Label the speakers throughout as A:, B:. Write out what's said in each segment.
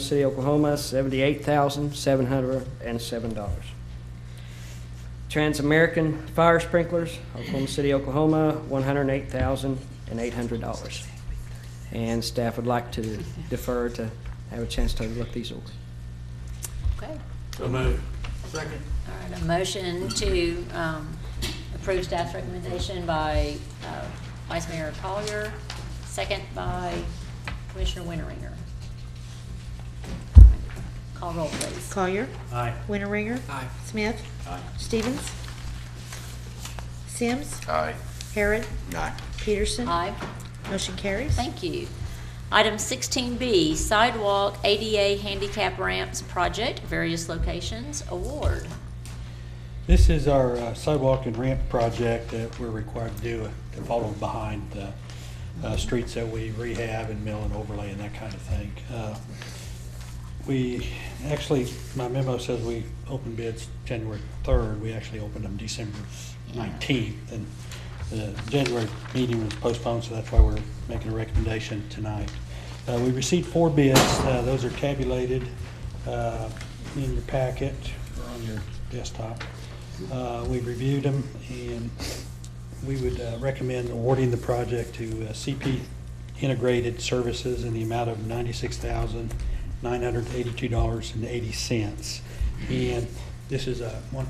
A: City, Oklahoma, seventy-eight thousand, seven hundred and seven dollars. Trans-American Fire Sprinklers, Oklahoma City, Oklahoma, one hundred and eight thousand and eight hundred dollars. And staff would like to defer to have a chance to look these over.
B: Okay,
C: So moved.
D: Second.
B: all right, a motion to um, approve staff's recommendation by uh, Vice Mayor Collier, second by Commissioner Winteringer. Call roll, please.
E: Collier.
C: Aye.
E: Winteringer.
D: Aye.
E: Smith.
C: Aye.
E: Stevens. Sims.
D: Aye.
E: Harrod.
D: Aye.
E: Peterson.
B: Aye,
E: Motion carries.
B: thank you. Item 16B, sidewalk ADA handicap ramps project, various locations, award.
F: This is our uh, sidewalk and ramp project that we're required to do uh, to follow behind the uh, streets that we rehab and mill and overlay and that kind of thing. Uh, We, actually, my memo says we opened bids January 3rd. We actually opened them December 19th. And the January meeting was postponed, so that's why we're making a recommendation tonight. Uh, We received four bids. Uh, Those are tabulated uh, in your packet or on your desktop. Uh, We reviewed them, and we would uh, recommend awarding the project to uh, CP Integrated Services in the amount of $96,982.80. And this is a, one,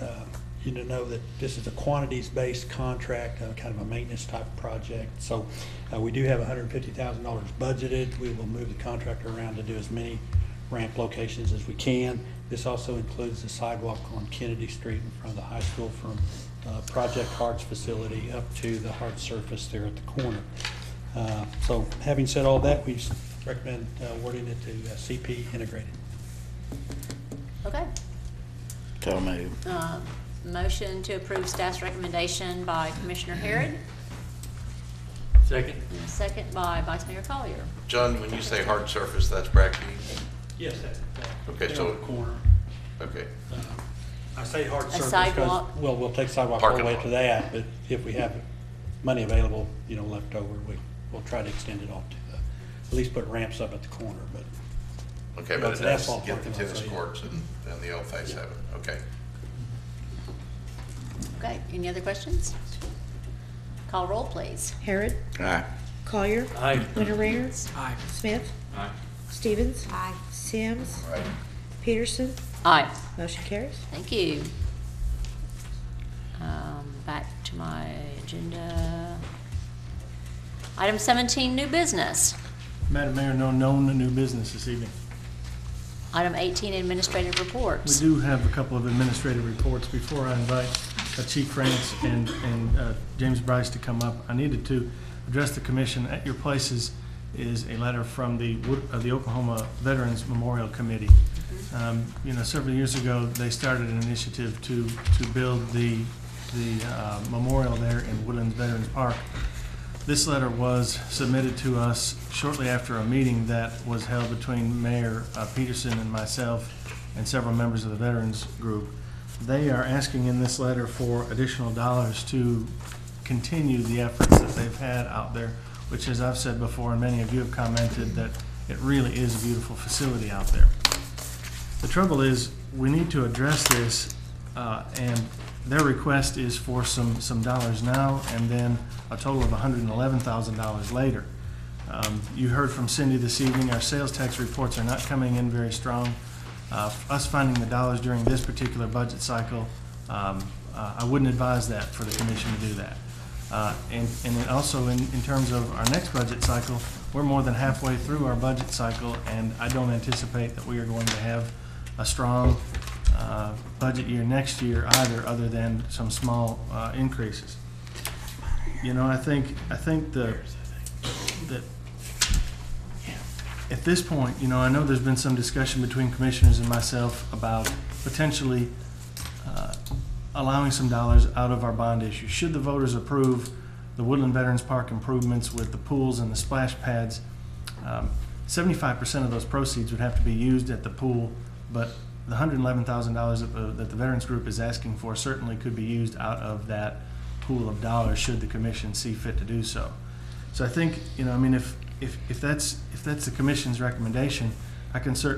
F: uh, you to know that this is a quantities-based contract, uh, kind of a maintenance type project. So uh, we do have $150,000 budgeted. We will move the contractor around to do as many ramp locations as we can. This also includes the sidewalk on Kennedy Street in front of the high school from uh, Project Hearts facility up to the hard surface there at the corner. Uh, So having said all that, we recommend uh, awarding it to uh, CP Integrated.
B: Okay.
D: So moved.
B: Uh, Motion to approve staff's recommendation by Commissioner Harrod,
C: Second?
B: and a second by Vice Mayor Collier.
G: John, when you say hard surface, that's bracky?
F: Yes, that's. uh,
G: Okay, there so- on the
F: Corner. Uh,
G: Okay.
F: I say hard surface. 'cause-
B: sidewalk.
F: Well, we'll take sidewalk all the
G: Parking
F: way
G: lot.
F: to that, but if we have money available, you know, left over, we, we'll try to extend it off to the, at least put ramps up at the corner, but
G: Okay,
F: Well,
G: but
F: it's
G: it
F: an
G: does
F: asphalt
G: get the
F: parking lot,
G: tennis
F: so yeah.
G: courts and, and the old face of it. Okay.
B: Okay, any other questions? Call roll, please.
E: Harrod.
D: Aye.
E: Collier.
C: Aye.
E: Winteringer.
D: Aye.
E: Smith.
C: Aye.
E: Stevens. Aye. Sims.
G: Right.
E: Peterson.
B: Aye,
E: Motion carries.
B: thank you. Um, Back to my agenda. Item 17, new business.
H: Madam Mayor, no known new business this evening.
B: Item 18, administrative
H: We
B: reports.
H: do have a couple of administrative reports. Before I invite uh, Chief France and, and uh, James Bryce to come up, I needed to address the commission. At your places is a letter from the, Wood- uh, the Oklahoma Veterans Memorial Committee. Um, You know, several years ago, they started an initiative to, to build the, the uh, memorial there in Woodlands Veterans Park. This letter was submitted to us shortly after a meeting that was held between Mayor uh, Peterson and myself and several members of the veterans group. They are asking in this letter for additional dollars to continue the efforts that they've had out there, which as I've said before, and many of you have commented, that it really is a beautiful facility out there. The trouble is, we need to address this, uh, and their request is for some, some dollars now, and then a total of hundred and eleven thousand dollars later. Um, You heard from Cindy this evening, our sales tax reports are not coming in very strong. Uh, Us finding the dollars during this particular budget cycle, um, uh, I wouldn't advise that for the commission to do that. Uh, And, and then also in, in terms of our next budget cycle, we're more than halfway through our budget cycle, and I don't anticipate that we are going to have a strong uh, budget year next year either, other than some small uh, increases. You know, I think, I think the, that, at this point, you know, I know there's been some discussion between commissioners and myself about potentially uh, allowing some dollars out of our bond issue. Should the voters approve the Woodland Veterans Park improvements with the pools and the splash pads, um, seventy-five percent of those proceeds would have to be used at the pool, but the hundred and eleven thousand dollars that the that the Veterans Group is asking for certainly could be used out of that pool of dollars, should the commission see fit to do so. So I think, you know, I mean, if, if, if that's, if that's the commission's recommendation, I can certainly